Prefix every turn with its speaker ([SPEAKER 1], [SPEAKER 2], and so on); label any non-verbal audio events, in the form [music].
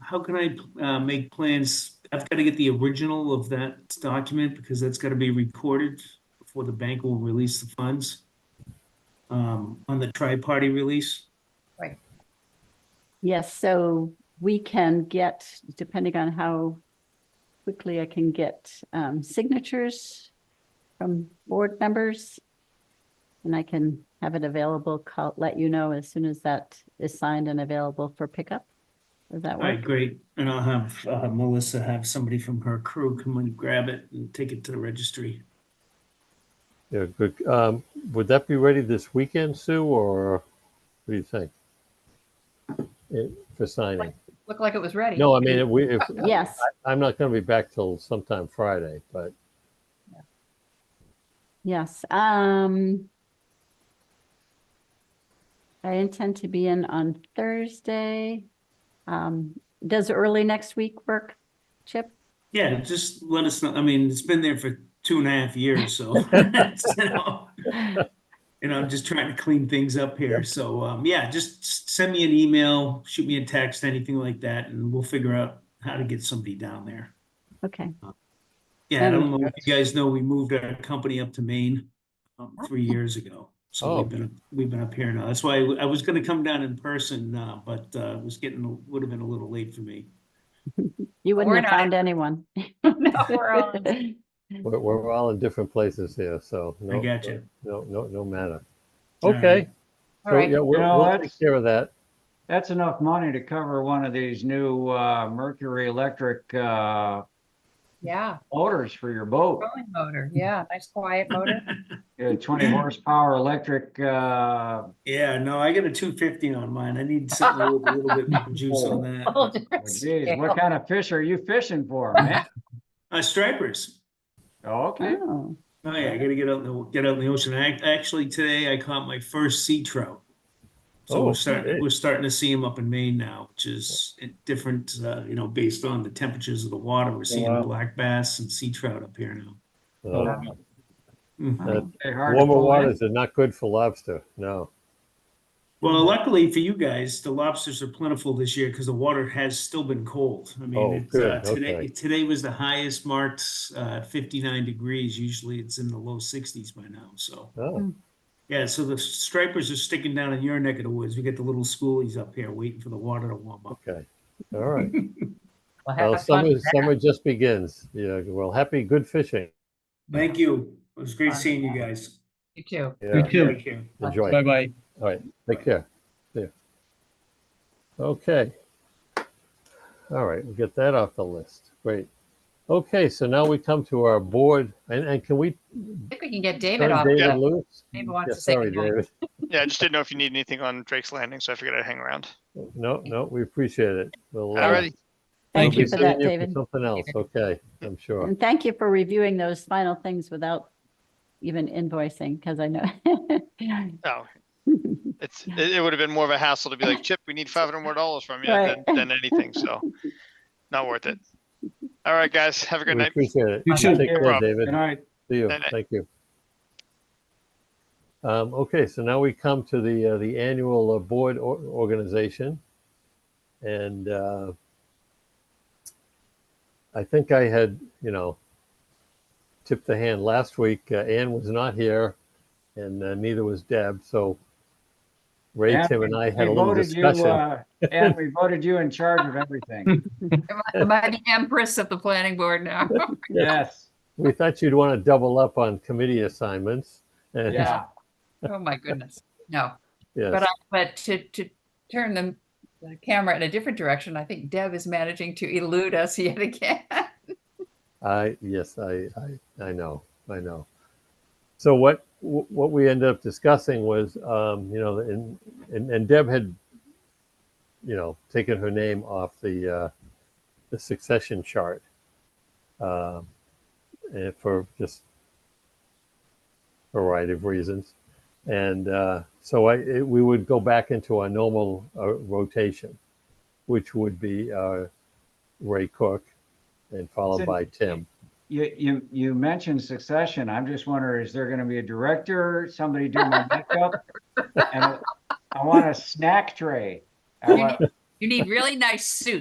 [SPEAKER 1] how can I, uh, make plans? I've gotta get the original of that document because that's gotta be recorded before the bank will release the funds. Um, on the tri-party release.
[SPEAKER 2] Yes, so we can get, depending on how quickly I can get um, signatures from board members. And I can have it available, call, let you know as soon as that is signed and available for pickup. Does that
[SPEAKER 1] All right,
[SPEAKER 2] work?
[SPEAKER 1] great. And I'll have, uh, Melissa have somebody from her crew come and grab it and take it to the registry.
[SPEAKER 3] Yeah, good. Um, would that be ready this weekend, Sue, or what do you think? It, for signing?
[SPEAKER 4] Looked like it was ready.
[SPEAKER 3] No, I mean, if we, if,
[SPEAKER 2] Yes,
[SPEAKER 3] I'm not gonna be back till sometime Friday, but
[SPEAKER 2] yes. Um, I intend to be in on Thursday. Um, Does early next week work, Chip?
[SPEAKER 1] Yeah, just let us know. I mean, it's been there for two and a half years, so. [laughs] you know, And I'm just trying to clean things up here. So, um, yeah, just s- send me an email, shoot me a text, anything like that, and we'll figure out how to get somebody down there.
[SPEAKER 2] Okay.
[SPEAKER 1] Yeah, I don't know if you guys know, we moved our company up to Maine, um, three years ago. So
[SPEAKER 3] Oh.
[SPEAKER 1] we've been, we've been up here now. That's why I was gonna come down in person, uh, but, uh, it was getting, would have been a little late for me.
[SPEAKER 2] You
[SPEAKER 4] We're
[SPEAKER 2] wouldn't have
[SPEAKER 4] not- [laughs]
[SPEAKER 2] found anyone.
[SPEAKER 4] No, [laughs] we're
[SPEAKER 3] [laughs]
[SPEAKER 4] on. Mm-hmm.
[SPEAKER 3] we're, we're all in different places here, so. no-
[SPEAKER 1] gotcha.
[SPEAKER 3] No, no, no matter.
[SPEAKER 1] All
[SPEAKER 3] Okay,
[SPEAKER 1] right.
[SPEAKER 4] All
[SPEAKER 3] so
[SPEAKER 4] right.
[SPEAKER 3] yeah, we'll,
[SPEAKER 5] No,
[SPEAKER 3] we'll
[SPEAKER 5] that's-
[SPEAKER 3] take care of that.
[SPEAKER 5] That's enough money to cover one of these new uh, Mercury Electric uh,
[SPEAKER 4] Yeah.
[SPEAKER 5] motors for your boat.
[SPEAKER 4] Rolling motor. Yeah. Nice quiet
[SPEAKER 3] [laughs]
[SPEAKER 4] motor.
[SPEAKER 5] Uh, 20 horsepower electric. Uh,
[SPEAKER 1] Yeah, no, I got a two fifty on mine. I need something with a little
[SPEAKER 3] [laughs]
[SPEAKER 1] bit more juice on
[SPEAKER 3] Oh,
[SPEAKER 1] that.
[SPEAKER 5] geez, what kind of fish are you fishing for, man?
[SPEAKER 1] Uh, stripers.
[SPEAKER 5] Okay.
[SPEAKER 2] [laughs] Oh,
[SPEAKER 1] Oh yeah, I gotta get out in the, get out in the ocean. I, actually, today I caught my first sea trout. So
[SPEAKER 3] Oh,
[SPEAKER 1] we're starting,
[SPEAKER 3] okay.
[SPEAKER 1] we're starting to see them up in Maine now, which is a different, uh, you know, based on the temperatures of the water. We're seeing
[SPEAKER 3] Wow.
[SPEAKER 1] black bass and sea trout up here now.
[SPEAKER 3] Uh,
[SPEAKER 1] Mhm.
[SPEAKER 3] Uh,
[SPEAKER 5] They're hard to
[SPEAKER 3] Warmer
[SPEAKER 5] pull in.
[SPEAKER 3] waters are not good for lobster, no.
[SPEAKER 1] Well, luckily for you guys, the lobsters are plentiful this year because the water has still been cold. I
[SPEAKER 3] Oh,
[SPEAKER 1] mean, it's, uh,
[SPEAKER 3] good,
[SPEAKER 1] today,
[SPEAKER 3] okay.
[SPEAKER 1] today was the highest marked, uh, fifty-nine degrees. Usually it's in the low sixties by now, so.
[SPEAKER 3] Oh,
[SPEAKER 1] Yeah, so the stripers are sticking down in your neck of the woods. We got the little schoolies up here waiting for the water to warm up.
[SPEAKER 3] okay, all
[SPEAKER 4] [laughs]
[SPEAKER 3] right.
[SPEAKER 4] Well, have
[SPEAKER 3] Well,
[SPEAKER 4] fun
[SPEAKER 3] summer,
[SPEAKER 4] with that.
[SPEAKER 3] summer just begins. Yeah, well, happy, good fishing.
[SPEAKER 1] Thank you. It was great seeing you guys.
[SPEAKER 4] You too.
[SPEAKER 3] Yeah,
[SPEAKER 6] too.
[SPEAKER 1] Take care.
[SPEAKER 3] enjoy.
[SPEAKER 6] Bye-bye.
[SPEAKER 3] All right, take care. See ya. Okay. All right, we'll get that off the list. Great. Okay, so now we come to our board, and, and can we
[SPEAKER 4] I think we can get David
[SPEAKER 3] turn
[SPEAKER 4] off.
[SPEAKER 3] David
[SPEAKER 4] the-
[SPEAKER 3] loose?
[SPEAKER 4] David wants
[SPEAKER 3] Yeah,
[SPEAKER 4] to say
[SPEAKER 3] Sorry,
[SPEAKER 4] goodnight.
[SPEAKER 3] David.
[SPEAKER 7] Yeah, I just didn't know if you need anything on Drake's Landing, so I figured I'd hang around.
[SPEAKER 3] No, no, we appreciate it. We'll, uh,
[SPEAKER 7] Alrighty,
[SPEAKER 2] Thank
[SPEAKER 3] we'll
[SPEAKER 2] you
[SPEAKER 3] be
[SPEAKER 2] for that,
[SPEAKER 3] seeing you
[SPEAKER 2] David.
[SPEAKER 3] Something else, okay, I'm sure.
[SPEAKER 2] And thank you for reviewing those final things without even invoicing, because I know. [laughs]
[SPEAKER 7] oh, it's, it, it would have been more of a hassle to be like, Chip, we need five hundred more dollars from you
[SPEAKER 2] Right.
[SPEAKER 7] than, than anything, so not worth it. All right, guys, have a good
[SPEAKER 3] We
[SPEAKER 7] night.
[SPEAKER 3] appreciate it.
[SPEAKER 6] You too.
[SPEAKER 3] Take care,
[SPEAKER 7] Rob.
[SPEAKER 3] David.
[SPEAKER 5] Good night.
[SPEAKER 3] See you.
[SPEAKER 7] Night, night.
[SPEAKER 3] Thank you. Um, okay, so now we come to the, uh, the annual uh, board or- organization. And, uh, I think I had, you know, tipped the hand last week. Uh, Ann was not here and uh, neither was Deb, so Ray,
[SPEAKER 5] Yeah,
[SPEAKER 3] Tim and I had
[SPEAKER 5] We
[SPEAKER 3] a little
[SPEAKER 5] voted you,
[SPEAKER 3] discussion.
[SPEAKER 5] uh, and we voted you in charge of everything.
[SPEAKER 3] [laughs]
[SPEAKER 4] Am I- Am I the empress of the planning board now? [laughs]
[SPEAKER 5] Yes.
[SPEAKER 3] We thought you'd want to double up on committee assignments. [laughs] and-
[SPEAKER 5] Yeah.
[SPEAKER 4] Oh, my goodness. No.
[SPEAKER 3] Yes.
[SPEAKER 4] But I, but to, to turn the, the camera in a different direction, I think Deb is managing to elude us yet again. [laughs]
[SPEAKER 3] I, yes, I, I, I know, I know. So what, wh- what we ended up discussing was, um, you know, and, and, and Deb had, you know, taken her name off the, uh, the succession chart. Um, and for just a variety of reasons. And, uh, so I, it, we would go back into our normal uh, rotation, which would be, uh, Ray Cook and followed
[SPEAKER 5] So-
[SPEAKER 3] by Tim.
[SPEAKER 5] You, you, you mentioned succession. I'm just wondering, is there going to be a director, somebody do my makeup? And I want a snack tray. I
[SPEAKER 4] You
[SPEAKER 5] want-
[SPEAKER 4] need- you need really nice suits.